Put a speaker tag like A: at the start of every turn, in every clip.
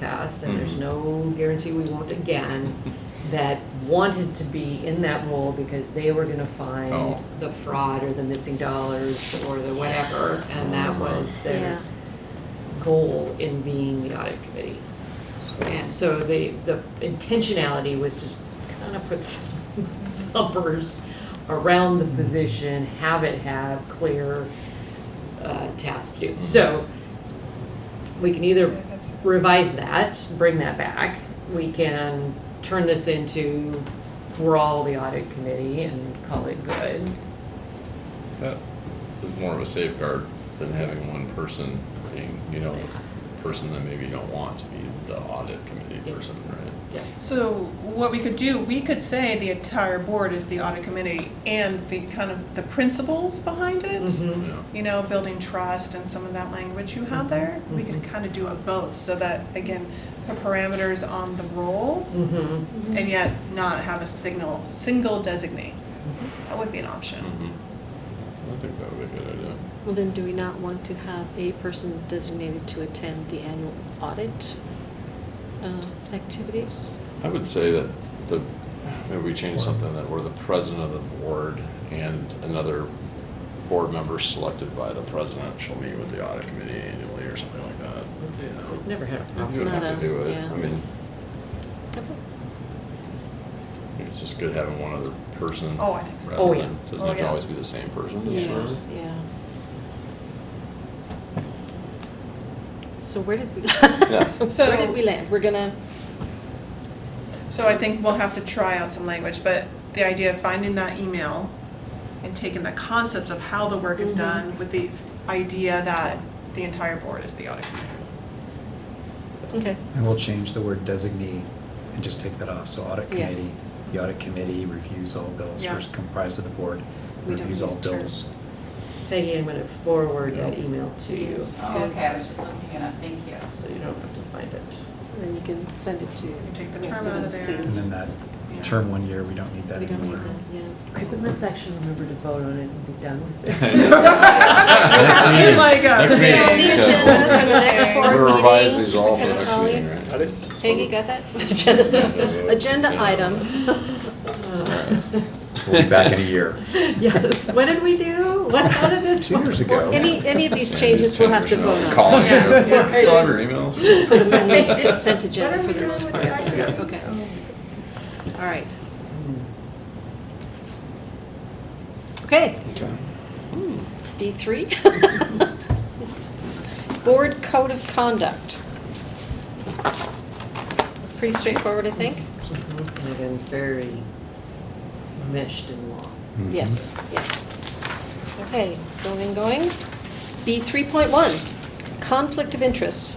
A: past, and there's no guarantee we won't again, that wanted to be in that role because they were gonna find
B: Oh.
A: the fraud or the missing dollars or the whatever, and that was their
C: Yeah.
A: goal in being the audit committee. And so the, the intentionality was just kind of put some numbers around the position, have it have clear uh, tasks to do. So we can either revise that, bring that back. We can turn this into, we're all the audit committee and call it good.
B: That was more of a safeguard than having one person being, you know, the person that maybe you don't want to be the audit committee person, right?
A: Yeah.
D: So what we could do, we could say the entire board is the audit committee and the kind of the principles behind it.
C: Mm-hmm.
A: Mhm.
B: Yeah.
D: You know, building trust and some of that language you had there, we could kind of do it both, so that, again, the parameters on the role
A: Mm-hmm.
D: and yet not have a signal, single designate. That would be an option.
B: Mhm. I think that would be a good idea.
C: Well, then do we not want to have a person designated to attend the annual audit uh, activities?
B: I would say that the, maybe we change something that we're the president of the board and another board member selected by the president shall meet with the audit committee annually or something like that.
A: We've Never had a problem.
C: It's
B: You don't
C: not
B: have to
C: a-
B: do it.
C: yeah.
B: I mean,
C: Okay.
B: it's just good having one other person.
D: Oh, I think so.
B: rather
A: Oh, yeah.
B: than-
D: Oh,
B: Doesn't have to
D: yeah.
B: always be the same person. that's
C: Yeah,
B: fine.
C: yeah. So where did we, where did
D: So-
C: we land? We're gonna,
D: So I think we'll have to try out some language, but the idea of finding that email and taking the concepts of how the work is done with the idea that the entire board is the audit committee.
C: okay,
E: And we'll change the word designee and just take that off, so audit
C: Yeah.
E: committee, the audit committee reviews all bills,
D: Yeah.
E: first comprised of the board,
C: We don't
E: reviews all
C: need a term.
E: bills.
A: Peggy, I'm gonna forward that email to you,
C: Yes.
A: so
F: Oh, okay, I was just looking it up, thank you.
A: you don't have to find it.
C: and then you can send it to.
D: You take the
C: rest
D: term
C: of
D: out
C: us,
D: of there.
E: And
C: please.
E: then that
D: Yeah.
E: term one year, we don't need that
C: We don't need
E: anymore.
C: that, yeah.
A: Okay, but let's actually remember to vote on it and be done with it.
B: Next meeting.
D: Like
A: uh,
D: a-
B: Next meeting.
C: Yeah, the agenda for the next
D: Okay.
B: We're gonna
C: board
B: revise
C: meeting,
B: these all for the
C: Superintendent
B: next
C: Holly.
B: meeting, right?
C: Peggy, got that? Agenda, Uh, agenda
B: Yeah.
C: item.
E: We'll be back in a year.
A: Yes, what did we do? What, how did this?
E: Two years
C: Well,
E: ago.
C: any, any of these
B: Send
C: changes we'll have to
B: tenders
C: vote
B: out.
C: on.
B: Call
D: Yeah.
B: it.
D: Yeah.
B: Hey, Saw your emails.
C: Just put them in the consent agenda
A: What are
C: for
A: we
C: the most
A: doing
C: part.
A: with the
C: Yeah,
A: item?
C: Okay. All right. Okay,
B: Okay.
C: B three. Board Code of Conduct. Pretty straightforward, I think.
A: And again, very meshed in law.
E: Mhm.
C: Yes, yes. Okay, going, going. B three point one, conflict of interest.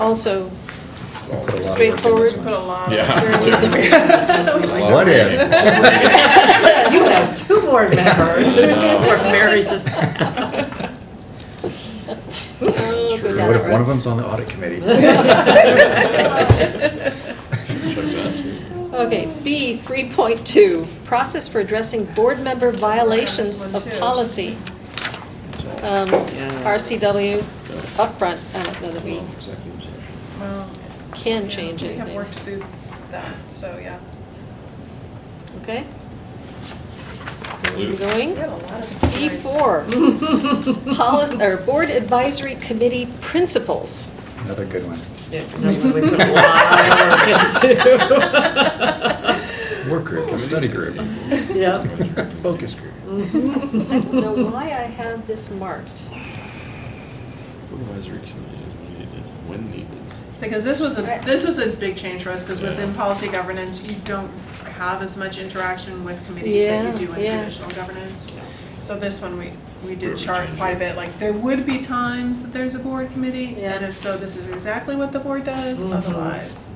C: Also,
E: Put a lot of work into this
C: Straightforward.
D: Put
E: one.
D: a lot
B: Yeah.
D: of.
E: What if?
A: You have two board members, we're married to
C: oh, go down that
E: What if one
C: road.
E: of them's on the audit committee?
B: Check that too.
C: Okay, B three point two, process for addressing board member violations
D: This one
C: of
D: too.
C: policy. Um,
A: Yeah.
C: RCW 's upfront, I don't know that we
B: Executive session.
D: Well,
C: can
D: yeah,
C: change
D: We have
C: anything,
D: work to do that, so yeah.
C: okay?
B: Luke.
D: We
C: Going,
D: had a lot of
C: B
D: experience.
C: four, policy, or board advisory committee principles.
E: Another good one. Work group, study group,
A: Yep.
E: focus group.
C: I don't know why I have this marked.
B: Supervisory committee is needed when needed.
D: So, because this was a, this was a big change for us, because
B: Yeah.
D: within policy governance, you don't have as much interaction with committees that you
C: Yeah,
D: do in
C: yeah.
D: traditional governance. So this one, we, we
B: Where we
D: did chart
B: changed
D: quite a
B: it.
D: bit, like, there would be times that there's a board committee, and
C: Yeah.
D: if so, this is exactly what the board does,
A: Mhm.
D: otherwise.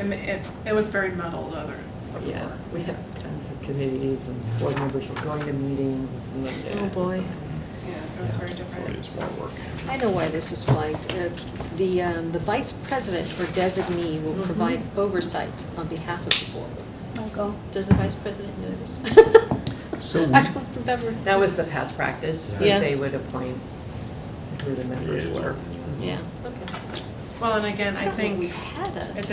D: And it, it was very muddled other,
A: Yeah,
D: before.
A: we had tons of committees and board members were going to meetings and.
C: Oh, boy.
D: Yeah, it was very different.
B: Probably it's more work.
C: I know why this is flagged. Uh, The, um, the vice president or designee
A: Mm-hmm.
C: will provide oversight on behalf of the board. Michael. Does the vice president do this?
E: So we-
C: I don't remember.
A: That was the past practice, was
C: Yeah.
A: they would appoint who the members were.
C: Yeah, okay.
D: Well, and again, I
C: don't know if
D: think.
C: We've had a.
D: if